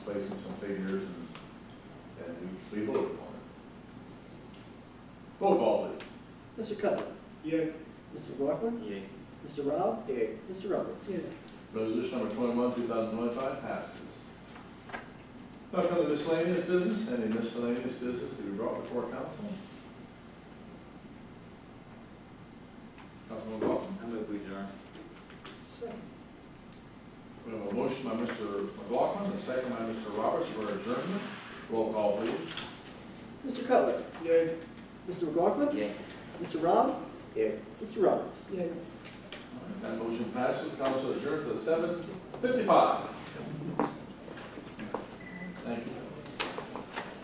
placing some figures and, and we, we voted on it. Roll call please. Mr. Cutler. Yeah. Mr. McLaughlin. Yeah. Mr. Rob. Yeah. Mr. Roberts. Resolution number twenty-one, two thousand twenty-five passes. Now come to miscellaneous business, any miscellaneous business to be brought before council? Councilman Baldwin. I move we adjourn. We have a motion by Mr. McLaughlin, a second by Mr. Roberts for adjournment. Roll call please. Mr. Cutler. Yeah. Mr. McLaughlin. Yeah. Mr. Rob. Yeah. Mr. Roberts. All right, That motion passes, council adjourned to seven fifty-five. Thank you.